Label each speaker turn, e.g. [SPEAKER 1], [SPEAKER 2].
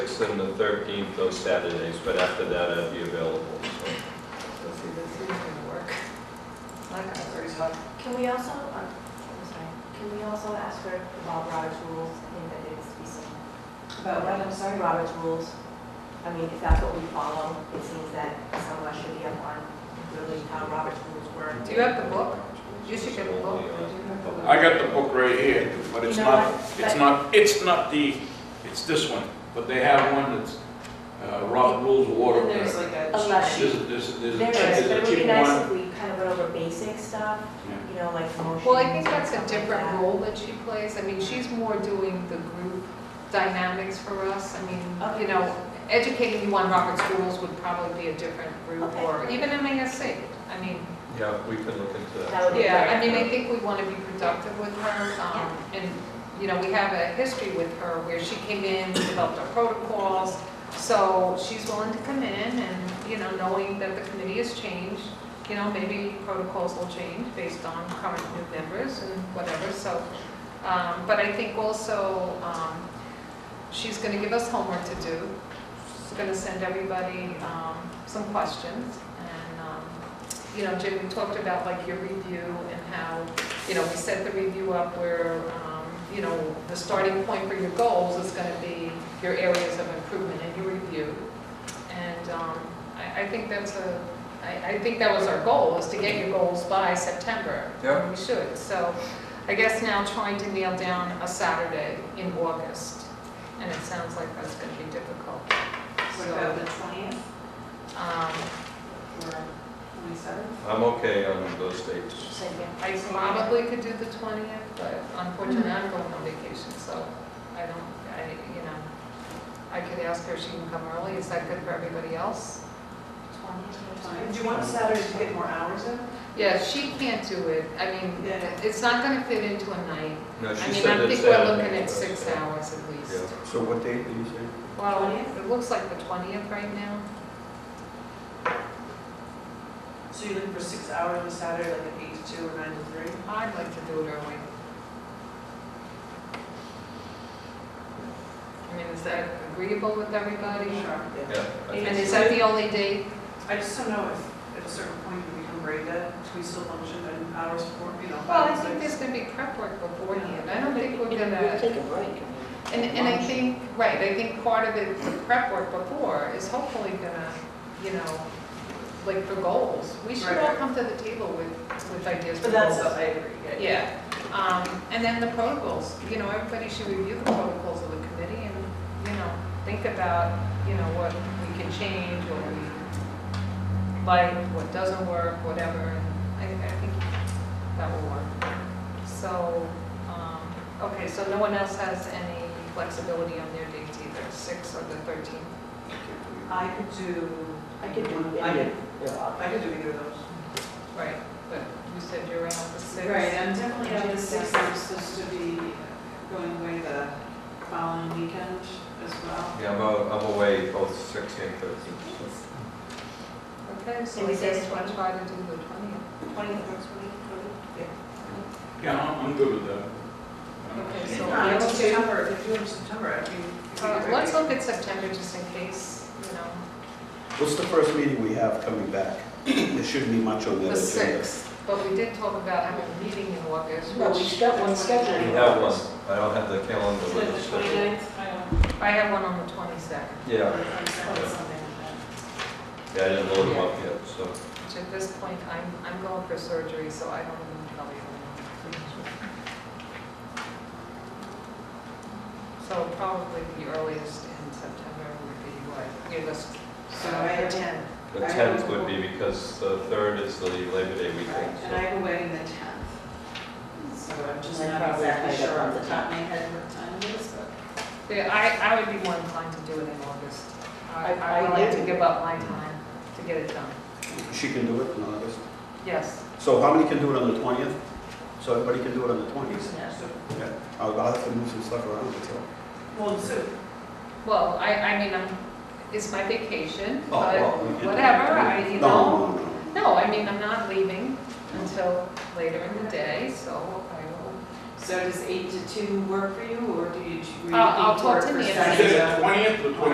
[SPEAKER 1] and the 13th, those Saturdays, but after that I'd be available, so.
[SPEAKER 2] Let's see, this is gonna work. My concern's
[SPEAKER 3] Can we also, um, I'm sorry, can we also ask her about Robert's rules? I think that needs to be said.
[SPEAKER 2] About what, I'm sorry?
[SPEAKER 3] Robert's rules. I mean, if that's what we follow, it seems that someone should be up on really how Robert's rules work.
[SPEAKER 2] Do you have the book? You should get the book.
[SPEAKER 4] I got the book right here, but it's
[SPEAKER 3] You know
[SPEAKER 4] not,
[SPEAKER 3] what?
[SPEAKER 4] it's not, it's not the, it's this one, but they have one that's, uh, Robert Rules of Water.
[SPEAKER 5] There's like a.
[SPEAKER 3] A left.
[SPEAKER 4] There's, a- there's, a- there's a
[SPEAKER 3] There
[SPEAKER 4] cheap,
[SPEAKER 3] is, but it
[SPEAKER 4] there's a
[SPEAKER 3] would be
[SPEAKER 4] cheap
[SPEAKER 3] nice
[SPEAKER 4] one.
[SPEAKER 3] if we kind of went over basic stuff,
[SPEAKER 4] Yeah.
[SPEAKER 3] you know, like motion.
[SPEAKER 5] Well, I think that's a different role that she plays. I mean, she's more doing the group dynamics for us. I mean, you know, educating you on Robert's rules would probably be a different group
[SPEAKER 3] Okay.
[SPEAKER 5] or even MASC. I mean,
[SPEAKER 1] Yeah, we can look into
[SPEAKER 3] That
[SPEAKER 1] that.
[SPEAKER 3] would be-
[SPEAKER 5] yeah, I mean, I think we want to be productive with her. um, And, you know, we have a history with her where she came in, developed our protocols. So she's willing to come in and, you know, knowing that the committee has changed, you know, maybe protocols will change based on current new members and whatever, so. um, But I think also, um, she's going to give us homework to do. She's going to send everybody um, some questions and, um, you know, Jim, we talked about like your review and how, you know, we set the review up where, um, you know, the starting point for your goals is gonna be your areas of improvement in your review. And, um, I, I think that's a, I, I think that was our goal, is to get your goals by September.
[SPEAKER 1] Yeah.
[SPEAKER 5] We should, so I guess now trying to nail down a Saturday in August, and it sounds like that's gonna be difficult.
[SPEAKER 2] What about the twentieth
[SPEAKER 5] So, um,
[SPEAKER 2] or twenty-seventh?
[SPEAKER 1] I'm okay on those dates.
[SPEAKER 3] Just like, yeah.
[SPEAKER 5] I probably could do the twentieth, but unfortunately, I'm going on vacation, so I don't, I, you know, I could ask her if she can come early, is that good for everybody else?
[SPEAKER 2] Do you want Saturday to get more hours in?
[SPEAKER 5] Yeah, she can't do it, I mean,
[SPEAKER 2] Yeah.
[SPEAKER 5] it's not gonna fit into a night.
[SPEAKER 1] No,
[SPEAKER 5] I
[SPEAKER 1] she
[SPEAKER 5] mean,
[SPEAKER 1] said
[SPEAKER 5] I
[SPEAKER 1] that
[SPEAKER 5] think we're looking
[SPEAKER 1] Saturday,
[SPEAKER 5] at
[SPEAKER 1] so-
[SPEAKER 5] six hours at
[SPEAKER 1] Yeah.
[SPEAKER 5] least.
[SPEAKER 6] So what date did you say?
[SPEAKER 5] Well,
[SPEAKER 2] 20th?
[SPEAKER 5] it looks like the twentieth right now.
[SPEAKER 2] So you're looking for six hours on Saturday, like an eight to two or nine to three?
[SPEAKER 5] I'd like to do it early. I mean, is that agreeable with everybody?
[SPEAKER 2] Sure.
[SPEAKER 1] Yeah, I
[SPEAKER 5] And
[SPEAKER 1] think
[SPEAKER 5] is
[SPEAKER 1] so.
[SPEAKER 5] that the only date
[SPEAKER 2] I just don't know if at a certain point we can break that, do we still function in hours before, you know?
[SPEAKER 5] Well, I
[SPEAKER 2] five,
[SPEAKER 5] think
[SPEAKER 2] six?
[SPEAKER 5] there's gonna be prep work beforehand, I don't think we're gonna,
[SPEAKER 7] Take a break.
[SPEAKER 5] and, and I think, right, I think part of it, the prep work before is hopefully gonna, you know, like for goals, we should all
[SPEAKER 2] Right.
[SPEAKER 5] come to the table with, with ideas for
[SPEAKER 2] But
[SPEAKER 5] goals.
[SPEAKER 2] that's, I agree, yeah.
[SPEAKER 5] Yeah, um, and then the protocols, you know, everybody should review the protocols of the committee and, you know, think about, you know, what we can change, what we like, what doesn't work, whatever, and I, I think that will work. So, um, okay, so no one else has any flexibility on their dates either, six or the thirteenth?
[SPEAKER 2] I could do.
[SPEAKER 7] I could do,
[SPEAKER 2] I
[SPEAKER 7] yeah,
[SPEAKER 2] could,
[SPEAKER 7] yeah.
[SPEAKER 2] I could do either of those.
[SPEAKER 5] Right, but you said you're around the six.
[SPEAKER 2] I'm definitely
[SPEAKER 5] on the sixth.
[SPEAKER 2] I'm supposed to be going away the following weekend as well.
[SPEAKER 1] Yeah, I'm, a- I'm away both six and 13.
[SPEAKER 5] Okay, so
[SPEAKER 3] Maybe
[SPEAKER 5] we
[SPEAKER 3] say
[SPEAKER 5] just want to
[SPEAKER 3] 20th.
[SPEAKER 5] try to do the twentieth.
[SPEAKER 3] Twentieth works for me.
[SPEAKER 4] Yeah, I'm, I'm good with that.
[SPEAKER 5] Okay,
[SPEAKER 2] If
[SPEAKER 5] so
[SPEAKER 2] not,
[SPEAKER 5] let's
[SPEAKER 2] it's
[SPEAKER 5] do-
[SPEAKER 2] September, if you're in September, I mean. if you
[SPEAKER 5] Uh,
[SPEAKER 2] could-
[SPEAKER 5] Let's look at September just in case, you know,
[SPEAKER 6] What's the first meeting we have coming back? There shouldn't be much on
[SPEAKER 5] the
[SPEAKER 6] that agenda.
[SPEAKER 5] 6th. But we did talk about having a meeting in August,
[SPEAKER 7] No, we
[SPEAKER 5] which
[SPEAKER 7] got one
[SPEAKER 1] We
[SPEAKER 7] scheduled.
[SPEAKER 1] have one, I don't have the calendar
[SPEAKER 2] Like
[SPEAKER 1] with
[SPEAKER 2] the
[SPEAKER 1] us. but-
[SPEAKER 2] twenty-ninth, I don't.
[SPEAKER 5] I have one on the 22nd,
[SPEAKER 1] Yeah,
[SPEAKER 2] or something, something like
[SPEAKER 1] yeah, I didn't load them up yet, so.
[SPEAKER 5] which at this point, I'm, I'm going for surgery, so I don't even probably know. So probably the earliest in September would be what, near this,
[SPEAKER 2] that. So I have ten.
[SPEAKER 1] The
[SPEAKER 2] I
[SPEAKER 1] 10th
[SPEAKER 2] will-
[SPEAKER 1] would be because the 3rd is the Labor Day weekend,
[SPEAKER 2] And I
[SPEAKER 1] so.
[SPEAKER 2] have a wedding the tenth. So I'm just
[SPEAKER 7] I
[SPEAKER 2] not
[SPEAKER 7] probably
[SPEAKER 2] exactly
[SPEAKER 7] have it
[SPEAKER 2] sure
[SPEAKER 7] on
[SPEAKER 2] off the
[SPEAKER 7] the
[SPEAKER 2] top of my head what time it is, but.
[SPEAKER 5] Yeah, I, I would be more inclined to do it in August. I,
[SPEAKER 7] I-
[SPEAKER 5] I would like to
[SPEAKER 7] I-
[SPEAKER 5] give up my time to get it done.
[SPEAKER 6] She can do it in August.
[SPEAKER 5] Yes,
[SPEAKER 6] So how many can do it on the 20th? So everybody can do it on the 20th?
[SPEAKER 2] Yeah, so-
[SPEAKER 6] Yeah. I'll I'll have to move some stuff around, that's all.
[SPEAKER 2] Well, so,
[SPEAKER 5] well, I, I mean, I'm, it's my vacation,
[SPEAKER 6] Oh,
[SPEAKER 5] but
[SPEAKER 6] well, you can do it.
[SPEAKER 5] whatever, I, you know.
[SPEAKER 6] No, no, no.
[SPEAKER 5] No, I mean, I'm not leaving until later in the day, so I will.
[SPEAKER 2] so does eight to two work for you, or do you? do you
[SPEAKER 5] I'll- I'll Uh, talk
[SPEAKER 2] think work
[SPEAKER 5] to
[SPEAKER 2] for
[SPEAKER 5] Nancy.
[SPEAKER 4] Is
[SPEAKER 2] Saturday?
[SPEAKER 4] it twentieth or twenty?